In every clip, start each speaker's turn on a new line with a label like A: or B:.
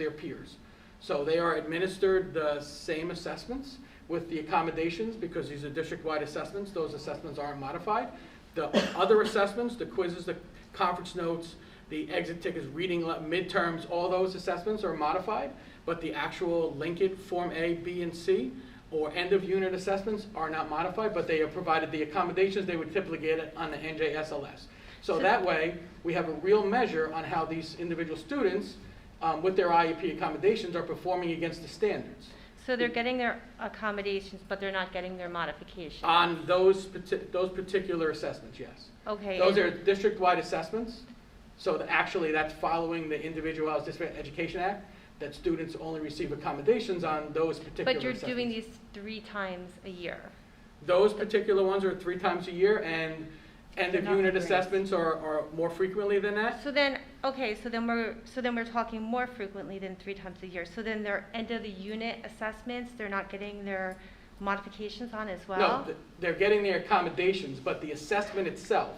A: their peers. So they are administered the same assessments with the accommodations, because these are district-wide assessments, those assessments aren't modified. The other assessments, the quizzes, the conference notes, the exit tickets, reading le- midterms, all those assessments are modified, but the actual Linkit Form A, B, and C, or end-of-unit assessments are not modified, but they are provided the accommodations they would typically get on the NJSLS. So that way, we have a real measure on how these individual students, um, with their IEP accommodations, are performing against the standards.
B: So they're getting their accommodations, but they're not getting their modification?
A: On those, parti- those particular assessments, yes.
B: Okay.
A: Those
B: and-
A: are district-wide assessments, so the- actually, that's following the Individualized Disability Education Act, that students only receive accommodations on those particular
B: But you're
A: assessments.
B: doing these three times a year?
A: Those particular ones are three times a year, and end-of-unit
B: Not great.
A: assessments are, are more frequently than that.
B: So then, okay, so then we're, so then we're talking more frequently than three times a year. So then their end of the unit assessments, they're not getting their modifications on as
A: No,
B: well?
A: th- they're getting their accommodations, but the assessment itself,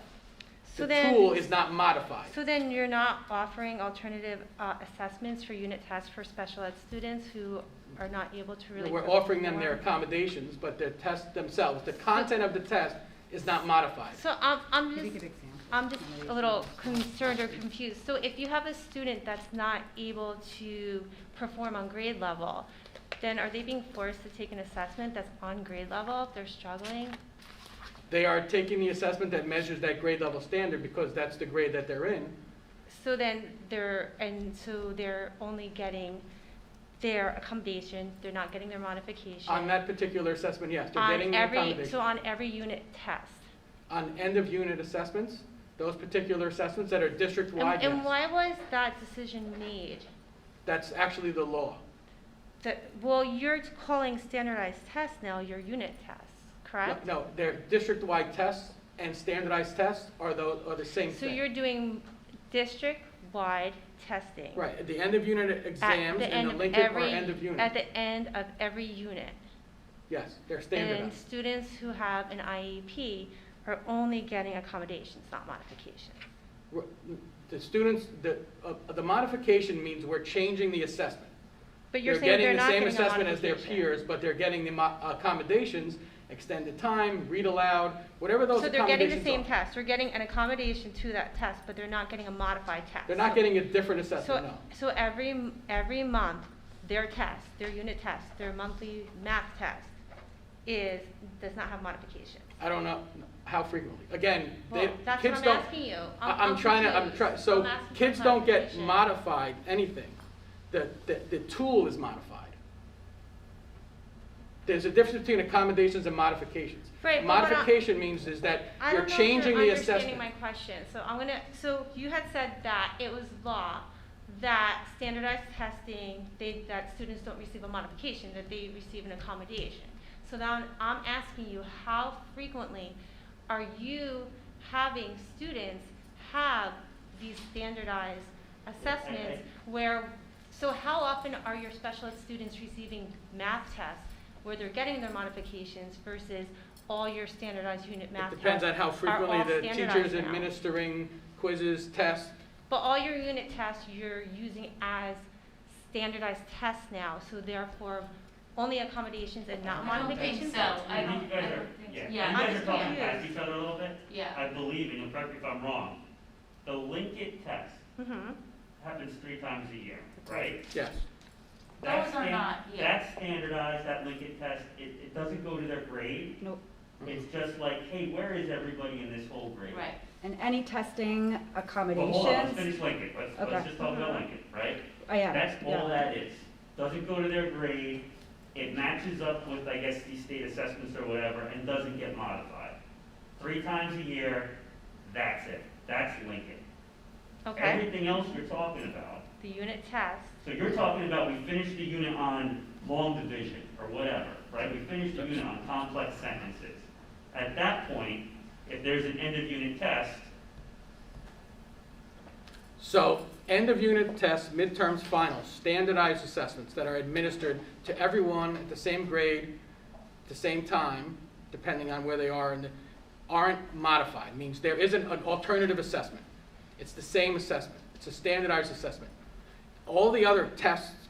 B: So
A: the
B: then-
A: tool is not modified.
B: So then you're not offering alternative uh, assessments for unit tests for special ed students who are not able to really.
A: We're offering them their
B: perform?
A: accommodations, but their test themselves, the content of the test is not modified.
B: So I'm, I'm
C: Give me
B: just,
C: good examples.
B: I'm just a little concerned or confused. So if you have a student that's not able to perform on grade level, then are they being forced to take an assessment that's on grade level if they're struggling?
A: They are taking the assessment that measures that grade level standard because that's the grade that they're in.
B: So then they're, and so they're only getting their accommodation, they're not getting their modification.
A: On that particular assessment, yes, they're
B: on
A: getting the
B: every- So
A: accommodation.
B: on every unit test.
A: On end-of-unit assessments, those particular assessments that are
B: And-
A: district-wide,
B: And
A: yes.
B: why was that decision made?
A: That's actually the law.
B: That, well, you're calling standardized tests now your unit tests, correct?
A: No, they're district-wide tests and standardized tests are the, are the same
B: So
A: thing.
B: you're doing district-wide testing?
A: Right, at the end of unit
B: at
A: exams
B: the end
A: and the
B: of
A: Lincoln are
B: every-
A: end of
B: At
A: unit.
B: the end of every unit?
A: Yes, they're
B: And
A: standardized.
B: students who have an IEP are only getting accommodations, not modifications.
A: R- The students, the, uh, the modification means we're changing the assessment.
B: But you're saying they're not getting
A: They're getting the
B: a
A: same assessment as their
B: modification.
A: peers, but they're getting the mo- accommodations, extended time, read aloud, whatever those
B: So they're getting the
A: accommodations
B: same
A: are.
B: test, they're getting an accommodation to that test, but they're not getting a modified test.
A: They're not
B: So-
A: getting a different
B: So,
A: assessment, no.
B: so every, every month, their test, their unit test, their monthly math test is, does not have modification.
A: I don't know how frequently. Again, they,
B: Well, that's what
A: kids
B: I'm
A: don't,
B: asking you.
A: I- I'm trying to, I'm
B: confused.
A: trying, so
B: I'm asking for
A: kids don't get
B: clarification.
A: modified anything. The, the, the tool is modified. There's a difference between accommodations and modifications.
B: Right, but what I-
A: Modification means is that
B: I
A: you're
B: don't know if
A: changing
B: you're
A: the
B: understanding
A: assessment.
B: my question, so I'm gonna, so you had said that it was law that standardized testing, they, that students don't receive a modification, that they receive an accommodation. So now I'm asking you, how frequently are you having students have these standardized assessments where, so how often are your special ed students receiving math tests where they're getting their modifications versus all your standardized unit math
A: It
B: tests?
A: depends on how
B: are
A: frequently
B: all
A: the teacher's
B: standardized now.
A: administering quizzes, tests.
B: But all your unit tests you're using as standardized tests now, so therefore only accommodations and not
D: I don't think
B: modifications?
D: so. I
E: I
D: don't,
E: think you guys are, yeah, you
D: Yeah,
E: guys
B: I'm
E: are talking
B: confused.
E: past each other a little bit.
D: yeah.
E: I believe, and you'll correct me if I'm wrong, the Linkit test
B: Mhm.
E: happens three times a year, right?
A: Yes,
E: That's
D: Those are
E: stan-
D: not- yeah.
E: That's standardized, that Linkit test, it, it doesn't go to their grade.
C: Nope.
E: It's just like, hey, where is everybody in this whole grade?
D: Right.
C: And any testing
E: Well, hold on, let's
C: accommodations?
E: finish Linkit, let's,
C: Okay.
E: let's just talk about Linkit, right?
C: I am,
E: That's
C: yeah.
E: all that is. Doesn't go to their grade, it matches up with, I guess, the state assessments or whatever, and doesn't get modified. Three times a year, that's it. That's Lincoln.
B: Okay,
E: Everything else you're talking about,
B: the unit test,
E: so you're talking about we finished the unit on long division or whatever, right? We finished the unit on complex sentences. At that point, if there's an end of unit test,
A: so end of unit tests, midterms, finals, standardized assessments that are administered to everyone at the same grade, the same time, depending on where they are, and aren't modified, means there isn't an alternative assessment. It's the same assessment, it's a standardized assessment. All- all the other tests